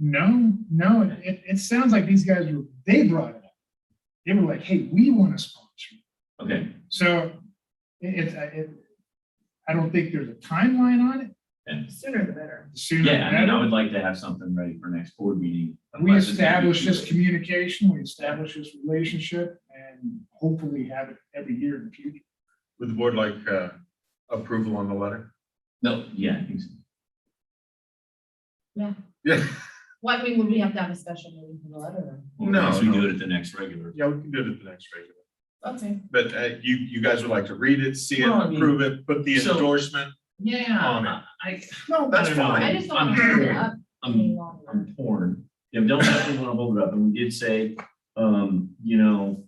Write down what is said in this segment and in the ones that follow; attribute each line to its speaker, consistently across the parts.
Speaker 1: No, no, it, it, it sounds like these guys were, they brought it up. They were like, hey, we want to sponsor. you."
Speaker 2: Okay,
Speaker 1: So it, it's, I- it, I don't think there's a timeline on it.
Speaker 3: Sooner the better.
Speaker 1: The sooner the
Speaker 2: yeah, I mean, I
Speaker 1: better.
Speaker 2: would like to have something ready for next board meeting.
Speaker 1: We
Speaker 2: unless it's gonna be
Speaker 1: establish
Speaker 2: too
Speaker 1: this
Speaker 2: late.
Speaker 1: communication, we establish this relationship and hopefully have it every year in the future.
Speaker 4: Would the board like uh, approval on the letter?
Speaker 2: No, yeah, I think so.
Speaker 4: Yeah,
Speaker 3: Well, I mean, would we have to have a special meeting for the letter?
Speaker 2: Well,
Speaker 4: No,
Speaker 2: unless we
Speaker 4: no.
Speaker 2: do it at the next regular.
Speaker 4: yeah, we can do it at the next regular.
Speaker 3: Okay.
Speaker 4: But uh, you, you guys would like to read it, see it,
Speaker 2: Well, I mean-
Speaker 4: approve it, put the
Speaker 2: So-
Speaker 4: endorsement. On
Speaker 2: Yeah,
Speaker 4: it.
Speaker 2: I,
Speaker 4: No, that's
Speaker 2: I don't know.
Speaker 4: fine.
Speaker 3: I just don't want to hold it up
Speaker 2: I'm
Speaker 3: any longer.
Speaker 2: I'm torn. You know, don't definitely want to hold it up. And we did say, um, you know,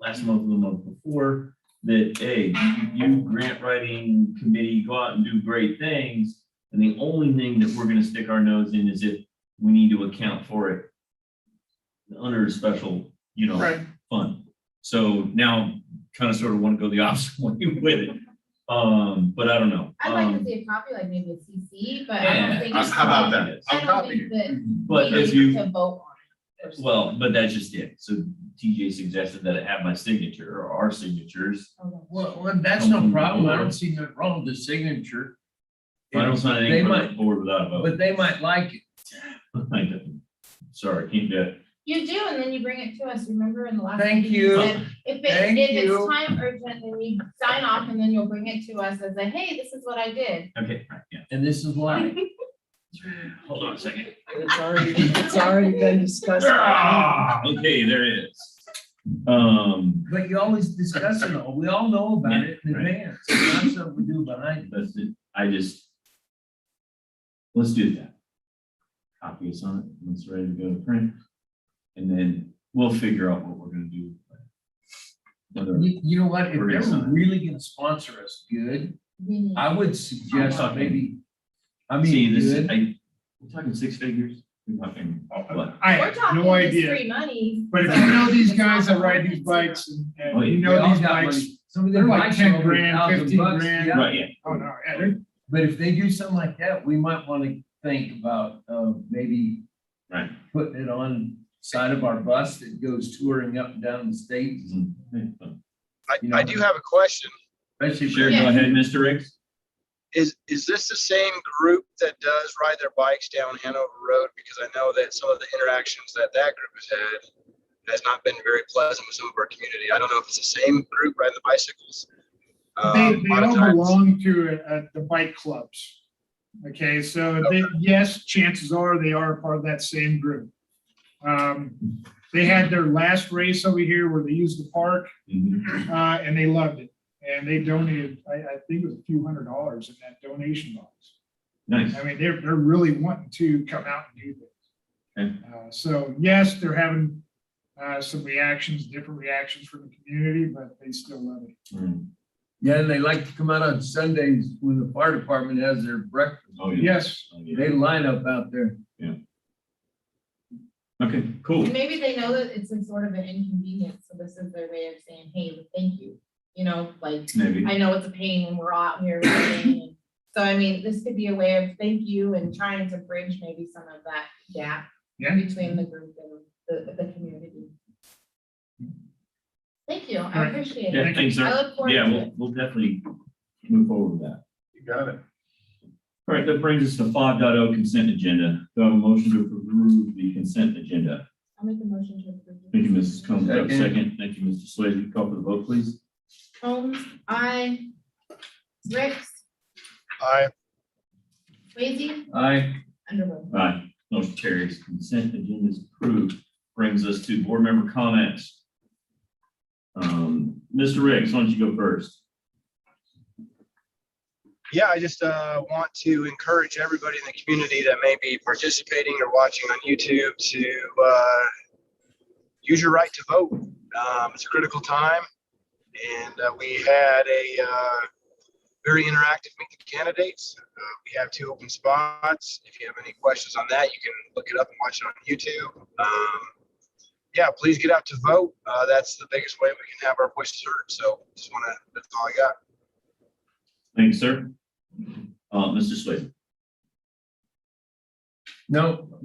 Speaker 2: last month, and the month before, that, hey, you grant writing committee, go out and do great things. And the only thing that we're gonna stick our nose in is if we need to account for it under a special, you know, fund. So now kind of sort of want to go the opposite way with it. Um, but I don't know.
Speaker 3: I'd like to
Speaker 2: Um,
Speaker 3: see a copy, like maybe a CC, but I
Speaker 2: Yeah,
Speaker 3: don't think.
Speaker 4: Uh, How about that?
Speaker 2: Yes.
Speaker 3: I
Speaker 4: I'll
Speaker 3: don't
Speaker 4: copy
Speaker 3: think
Speaker 4: you.
Speaker 3: that we
Speaker 2: But if you.
Speaker 3: need to vote on it.
Speaker 2: Well, but that's just it. So TJ suggested that it have my signature or our signatures.
Speaker 5: Well, well, that's no problem. I don't see nothing wrong with the signature.
Speaker 2: I don't sign anything
Speaker 5: They
Speaker 2: for
Speaker 5: might-
Speaker 2: the board without a vote.
Speaker 5: But they might like it.
Speaker 2: I don't- Sorry, can't do it.
Speaker 3: You do, and then you bring it to us, remember in the last.
Speaker 5: Thank
Speaker 3: meeting
Speaker 5: you.
Speaker 3: said, If it,
Speaker 5: Thank
Speaker 3: if it's
Speaker 5: you.
Speaker 3: time urgent, then we sign off and then you'll bring it to us as a, hey, this is what I did.
Speaker 2: Okay, right, yeah.
Speaker 5: And this is why.
Speaker 2: Hold on a second.
Speaker 6: It's already, it's already been discussed.
Speaker 2: Ah, Okay, there it is. Um,
Speaker 5: But you always discuss it all. We all know about it in
Speaker 2: Yeah, right.
Speaker 5: advance. It's not something we do behind it.
Speaker 2: that's it. I just. Let's do that. Copy us on it. when it's ready to go to print. And then we'll figure out what we're gonna do. Whether-
Speaker 5: You, you know what? If
Speaker 2: We're gonna
Speaker 5: they're
Speaker 2: sign it.
Speaker 5: really gonna sponsor us good,
Speaker 3: We need-
Speaker 5: I would suggest
Speaker 2: Talking.
Speaker 5: maybe, I
Speaker 2: See,
Speaker 5: mean,
Speaker 2: this, is-
Speaker 5: good.
Speaker 2: I, we're talking six figures, we're talking, what?
Speaker 1: I
Speaker 3: We're
Speaker 1: have
Speaker 3: talking
Speaker 1: no
Speaker 3: this
Speaker 1: idea.
Speaker 3: free money.
Speaker 1: But if you know these guys that ride these bikes and,
Speaker 2: Oh,
Speaker 1: and
Speaker 2: yeah.
Speaker 1: you
Speaker 5: They
Speaker 1: know
Speaker 5: all
Speaker 1: these
Speaker 5: got
Speaker 1: bikes,
Speaker 5: money. Some of
Speaker 1: they're
Speaker 5: them
Speaker 1: like
Speaker 5: bikes
Speaker 1: 10
Speaker 5: are over
Speaker 1: grand,
Speaker 5: 1,000
Speaker 1: 15
Speaker 5: bucks.
Speaker 1: grand.
Speaker 5: Yeah.
Speaker 2: Right, yeah.
Speaker 1: oh no, yeah, they're-
Speaker 5: But if they do something like that, we might want to think about uh, maybe
Speaker 2: Right.
Speaker 5: putting it on side of our bus that goes touring up and down the state,
Speaker 7: I,
Speaker 5: You know-
Speaker 7: I do have a question.
Speaker 5: especially.
Speaker 2: Sure, go ahead, Mr. Ricks.
Speaker 7: Is, is this the same group that does ride their bikes down Hanover Road? Because I know that some of the interactions that that group has had has not been very pleasant with some of our community. I don't know if it's the same group riding the bicycles.
Speaker 1: They,
Speaker 7: Um,
Speaker 1: they
Speaker 7: a lot of
Speaker 1: all
Speaker 7: times-
Speaker 1: belong to uh, the bike clubs. Okay, so they, yes, chances are they are part of that same group. Um, They had their last race over here where they used the park,
Speaker 2: Mhm.
Speaker 1: uh, and they loved it. And they donated, I, I think it was a few hundred dollars in that donation box.
Speaker 2: Nice,
Speaker 1: I mean, they're, they're really wanting to come out and do this. Uh, So yes, they're having uh, some reactions, different reactions from the community, but they still love it.
Speaker 2: Mm.
Speaker 5: Yeah, and they like to come out on Sundays when the fire department has their breakfast.
Speaker 2: oh, yeah,
Speaker 1: Yes,
Speaker 2: oh, yeah.
Speaker 5: They line up out there.
Speaker 2: Okay, cool,
Speaker 3: And maybe they know that it's a sort of an inconvenience, so this is their way of saying, hey, thank you, you know, like,
Speaker 2: maybe,
Speaker 3: I know it's a pain when we're out here. riding, and- So I mean, this could be a way of thank you and trying to bridge maybe some of that gap
Speaker 1: Yeah.
Speaker 3: between the group and the, the community. Thank you, I
Speaker 1: Right.
Speaker 3: appreciate it.
Speaker 2: yeah, thanks,
Speaker 3: I
Speaker 2: sir.
Speaker 3: look forward
Speaker 2: Yeah,
Speaker 3: to
Speaker 2: we'll,
Speaker 3: it.
Speaker 2: we'll definitely move forward with that.
Speaker 4: You got it.
Speaker 2: All right, that brings us to five oh consent agenda, do I have a motion to approve the consent agenda?
Speaker 3: I'll make a motion to approve.
Speaker 2: Thank you, Mrs. Combs, Do I have a
Speaker 5: Second.
Speaker 2: second, thank you, Mr. Swayze, call for the vote, please.
Speaker 3: Holmes, I, Ricks,
Speaker 7: I,
Speaker 3: Lazy,
Speaker 5: I,
Speaker 3: Underwood.
Speaker 2: Aye, motion carries, consent agenda is approved. Brings us to board member comments. Um, Mr. Riggs, why don't you go first?
Speaker 7: yeah, I just, uh, want to encourage everybody in the community that may be participating or watching on YouTube to, uh, use your right to vote. Um, it's a critical time. And uh, we had a uh, very interactive meet the candidates. Uh, we have two open spots. If you have any questions on that, you can look it up and watch it on YouTube. Um, yeah, please get out to vote. Uh, that's the biggest way we can have our voices heard. So just want to, that's all I got.
Speaker 2: Thanks, sir. Uh, Mr. Swayze.
Speaker 5: no,